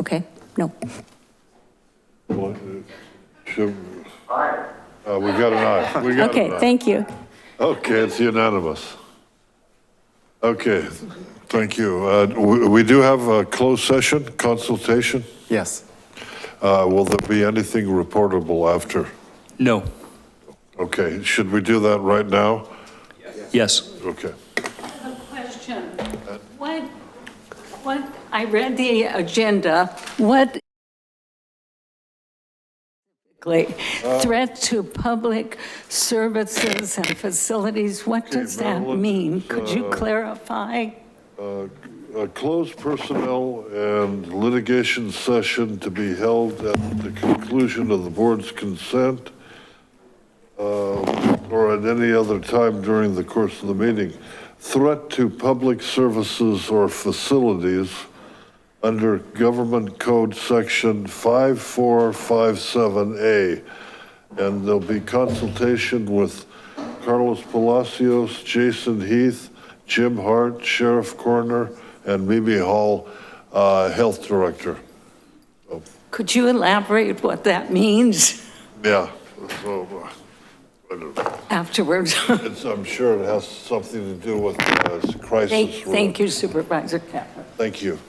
Okay, no. Well, uh, should- uh, We got an aye. We got Okay, an aye. thank you. Okay, it's unanimous. Okay, thank you. Uh, We we do have a closed session consultation. Yes. Uh, Will there be anything reportable after? No. Okay, should we do that right now? Yes. Okay. A question. What, what, I read the agenda. What threat to public services and facilities, what does that Marilyn, mean? Could you clarify? A closed personnel and litigation session to be held at the conclusion of the board's consent uh, or at any other time during the course of the meeting. Threat to public services or facilities under Government Code Section 5457A. And there'll be consultation with Carlos Palacios, Jason Heath, Jim Hart, Sheriff Coroner, and Mimi Hall, uh, Health Director. Could you elaborate what that means Yeah, so, uh, I don't know. afterwards? It's, I'm sure it has something to do with uh, crisis. Thank room. thank you Supervisor Caput. Thank you.